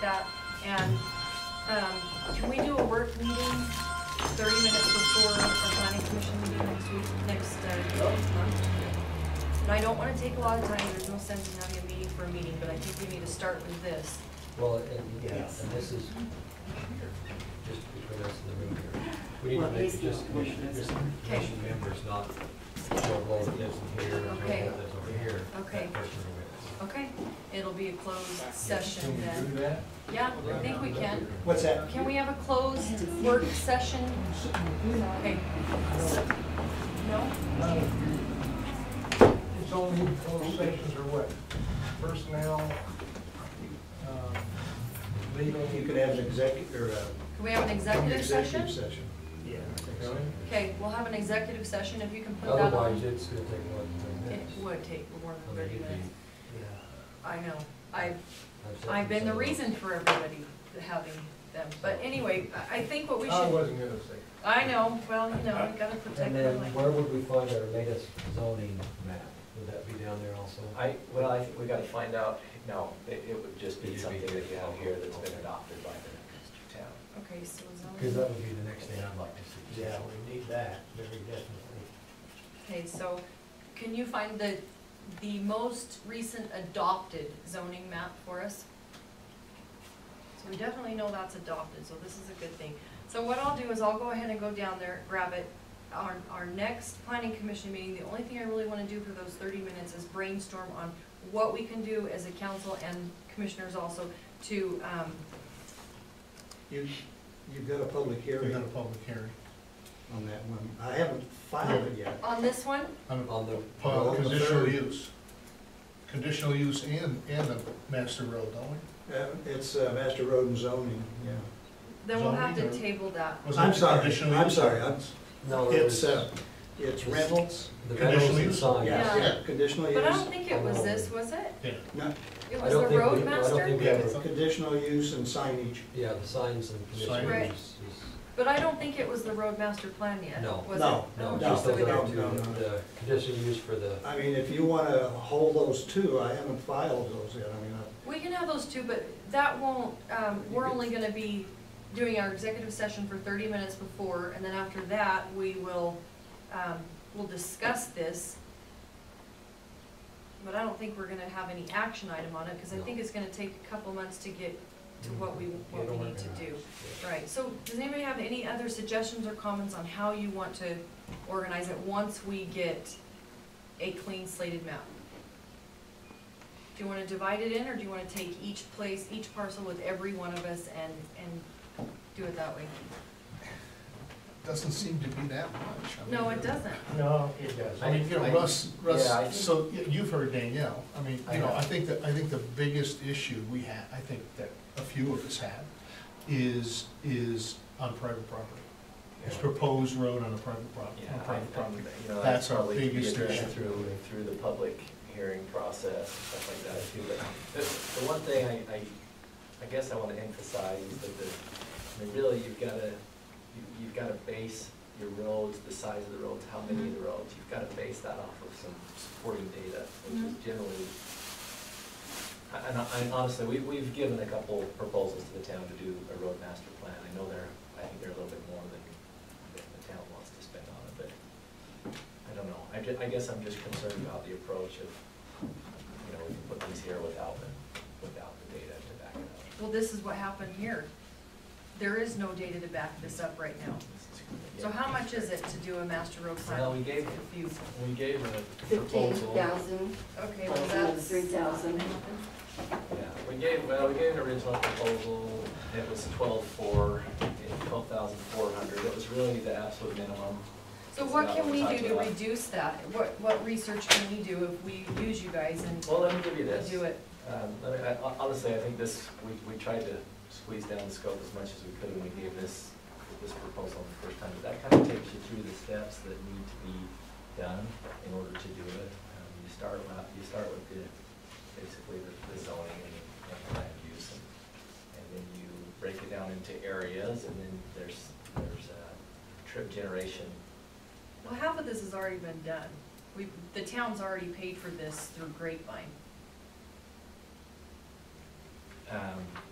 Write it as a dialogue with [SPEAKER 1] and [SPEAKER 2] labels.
[SPEAKER 1] that, and, um, can we do a work meeting thirty minutes before our planning commission meeting next week, next, uh, next month? And I don't wanna take a lot of time, there's no sense in having a meeting for a meeting, but I think we need to start with this.
[SPEAKER 2] Well, and, yeah, and this is, just between us and the room here, we need
[SPEAKER 3] Well,
[SPEAKER 2] to make
[SPEAKER 3] he's
[SPEAKER 2] it just
[SPEAKER 3] not
[SPEAKER 2] commission,
[SPEAKER 3] with us.
[SPEAKER 2] just commission members, not, Joe Blow that lives in here, and
[SPEAKER 1] Okay.
[SPEAKER 2] Joe Blow that lives over here.
[SPEAKER 1] Okay.
[SPEAKER 2] That person over there.
[SPEAKER 1] Okay, it'll be a closed
[SPEAKER 4] Can
[SPEAKER 1] session
[SPEAKER 4] we do
[SPEAKER 1] then.
[SPEAKER 4] that?
[SPEAKER 1] Yeah, I think we can.
[SPEAKER 4] What's that?
[SPEAKER 1] Can we have a closed work session? Okay. No?
[SPEAKER 4] It's only closed sessions or what? Personnel, um, legal?
[SPEAKER 5] You could have an executive, or a.
[SPEAKER 1] Can we have an executive session?
[SPEAKER 5] Executive session.
[SPEAKER 4] Yeah.
[SPEAKER 1] Okay, we'll have an executive session if you can put that
[SPEAKER 2] Otherwise,
[SPEAKER 1] on.
[SPEAKER 2] it's gonna take more than
[SPEAKER 1] It
[SPEAKER 2] ten minutes.
[SPEAKER 1] would take more
[SPEAKER 2] I
[SPEAKER 1] than
[SPEAKER 2] mean,
[SPEAKER 1] thirty
[SPEAKER 2] you'd be-
[SPEAKER 1] minutes.
[SPEAKER 4] Yeah.
[SPEAKER 1] I know. I've,
[SPEAKER 2] I've said
[SPEAKER 1] I've been the
[SPEAKER 2] this.
[SPEAKER 1] reason for everybody having them. But anyway, I- I think what we
[SPEAKER 4] I
[SPEAKER 1] should,
[SPEAKER 4] wasn't gonna say.
[SPEAKER 1] I know, well, you know, we gotta protect
[SPEAKER 2] Oh, And
[SPEAKER 1] the
[SPEAKER 2] then
[SPEAKER 1] land.
[SPEAKER 2] where would we find our latest zoning map? Would that be down there also?
[SPEAKER 6] I, well, I think we gotta find out, no, it, it would just
[SPEAKER 2] It'd
[SPEAKER 6] be
[SPEAKER 2] be
[SPEAKER 6] something
[SPEAKER 2] here.
[SPEAKER 6] that you have here that's been
[SPEAKER 2] Okay.
[SPEAKER 6] adopted by the town.
[SPEAKER 1] Okay, so
[SPEAKER 2] Because that
[SPEAKER 1] zoning,
[SPEAKER 2] would be the next thing I'd like to see.
[SPEAKER 5] Yeah, we need that, very definitely.
[SPEAKER 1] okay, so can you find the, the most recent adopted zoning map for us? So we definitely know that's adopted, so this is a good thing. So what I'll do is I'll go ahead and go down there, grab it. Our, our next planning commission meeting, the only thing I really wanna do for those thirty minutes is brainstorm on what we can do as a council and commissioners also to, um,
[SPEAKER 5] You, you've got a public
[SPEAKER 3] We
[SPEAKER 5] hearing
[SPEAKER 3] got a public hearing
[SPEAKER 5] on that one. I haven't filed it yet.
[SPEAKER 1] on this one,
[SPEAKER 3] on
[SPEAKER 2] On the.
[SPEAKER 3] a uh,
[SPEAKER 5] the
[SPEAKER 3] conditional
[SPEAKER 5] third.
[SPEAKER 3] use. Conditional use and, and the master road, don't we?
[SPEAKER 5] Uh, It's uh, Master Road and Zoning, yeah.
[SPEAKER 1] then we'll have to
[SPEAKER 3] Zoning or-
[SPEAKER 1] table that.
[SPEAKER 3] Wasn't
[SPEAKER 5] I'm
[SPEAKER 3] it
[SPEAKER 5] sorry,
[SPEAKER 3] conditional
[SPEAKER 5] I'm
[SPEAKER 3] use?
[SPEAKER 5] sorry, I'm-
[SPEAKER 2] No, it
[SPEAKER 5] It's,
[SPEAKER 2] was
[SPEAKER 5] uh,
[SPEAKER 2] the
[SPEAKER 5] it's rentals,
[SPEAKER 2] rentals
[SPEAKER 3] Conditional
[SPEAKER 2] and
[SPEAKER 3] use?
[SPEAKER 2] signs.
[SPEAKER 1] Yeah.
[SPEAKER 5] yeah, conditional
[SPEAKER 1] But I don't
[SPEAKER 5] use,
[SPEAKER 1] think it was this, was it?
[SPEAKER 3] Yeah,
[SPEAKER 5] no,
[SPEAKER 1] It
[SPEAKER 2] I
[SPEAKER 1] was
[SPEAKER 2] don't
[SPEAKER 1] the
[SPEAKER 2] think we-
[SPEAKER 1] road
[SPEAKER 2] I don't think
[SPEAKER 1] master?
[SPEAKER 2] we ever
[SPEAKER 5] conditional use and signage.
[SPEAKER 2] Yeah, the signs and conditional
[SPEAKER 3] Signage.
[SPEAKER 1] Right.
[SPEAKER 2] use is,
[SPEAKER 1] But I don't think it was the road master plan yet,
[SPEAKER 2] No.
[SPEAKER 1] was it?
[SPEAKER 5] No,
[SPEAKER 2] no,
[SPEAKER 1] Oh,
[SPEAKER 5] no,
[SPEAKER 2] just
[SPEAKER 1] so
[SPEAKER 2] those
[SPEAKER 1] we
[SPEAKER 2] other
[SPEAKER 1] don't-
[SPEAKER 5] no.
[SPEAKER 2] two, the conditional use for the,
[SPEAKER 5] I mean, if you want to hold those two, I haven't filed those yet, I mean, I-
[SPEAKER 1] We can have those two, but that won't, um, we're only gonna be doing our executive session for thirty minutes before, and then after that, we will, um, we'll discuss this. But I don't think we're gonna have any action item on it, because I
[SPEAKER 2] No.
[SPEAKER 1] think it's gonna take a couple months to get to what we, what
[SPEAKER 2] It'll
[SPEAKER 1] we
[SPEAKER 2] work
[SPEAKER 1] need to
[SPEAKER 2] out.
[SPEAKER 1] do. Right, so does anybody have any other suggestions or comments on how you want to organize it once we get a clean slated map? Do you wanna divide it in, or do you wanna take each place, each parcel with every one of us and, and do it that way?
[SPEAKER 3] doesn't seem to be that much. I mean,
[SPEAKER 1] No, it doesn't.
[SPEAKER 4] No, it doesn't.
[SPEAKER 3] I mean, you know,
[SPEAKER 6] I-
[SPEAKER 3] Russ,
[SPEAKER 6] yeah, I
[SPEAKER 3] Russ,
[SPEAKER 6] think-
[SPEAKER 3] so y- you've heard Danielle, I mean,
[SPEAKER 6] I
[SPEAKER 3] you know,
[SPEAKER 6] have.
[SPEAKER 3] I think that, I think the biggest issue we have, I think that a few of us have, is, is on private property. It's
[SPEAKER 6] Yeah.
[SPEAKER 3] proposed road on a private property,
[SPEAKER 6] Yeah,
[SPEAKER 3] on
[SPEAKER 6] I- I-
[SPEAKER 3] private property.
[SPEAKER 6] you know,
[SPEAKER 3] That's our
[SPEAKER 6] probably could be
[SPEAKER 3] biggest
[SPEAKER 6] addressed
[SPEAKER 3] issue.
[SPEAKER 6] Through, through the public hearing process, and stuff like that too, but the, the one thing I, I, I guess I wanna emphasize is that the, I mean, really, you've gotta, you- you've gotta base your roads, the size of the roads, how many of the roads, you've gotta base that off of some supporting data, which is
[SPEAKER 1] Mhm.
[SPEAKER 6] generally I- And I- and honestly, we, we've given a couple proposals to the town to do a road master plan. I know they're, I think they're a little bit more than, than the town wants to spend on it, but I don't know. I ju, I guess I'm just concerned about the approach of, you know, we can put these here without, the- without the data to back it up.
[SPEAKER 1] Well, this is what happened here. There is no data to back this up right now. So
[SPEAKER 6] Yeah.
[SPEAKER 1] how much is it to do a master road plan?
[SPEAKER 6] Well, we gave-
[SPEAKER 1] Few.
[SPEAKER 6] We gave a
[SPEAKER 7] Fifteen
[SPEAKER 6] proposal.
[SPEAKER 7] thousand,
[SPEAKER 1] Okay, well,
[SPEAKER 7] plus another
[SPEAKER 1] that's.
[SPEAKER 7] three thousand.
[SPEAKER 6] Yeah, we gave, well, we gave an original proposal, it was twelve-four, twelve thousand four hundred, it was really the absolute minimum.
[SPEAKER 1] So
[SPEAKER 6] It's
[SPEAKER 1] what
[SPEAKER 6] not
[SPEAKER 1] can we
[SPEAKER 6] we're
[SPEAKER 1] do to
[SPEAKER 6] talking about.
[SPEAKER 1] reduce that? What, what research can we do if we use you guys and
[SPEAKER 6] Well, let me give you this.
[SPEAKER 1] do it?
[SPEAKER 6] Um, I mean, I- hon- honestly, I think this, we, we tried to squeeze down the scope as much as we could when we gave this, this proposal the first time. But that kind of takes you through the steps that need to be done in order to do it. Um, You start with, you start with the, basically the the zoning and and land use. and- And then you break it down into areas and then there's, there's uh, trip generation.
[SPEAKER 1] Well, half of this has already been done. We, the town's already paid for this through Grapevine.
[SPEAKER 6] Um,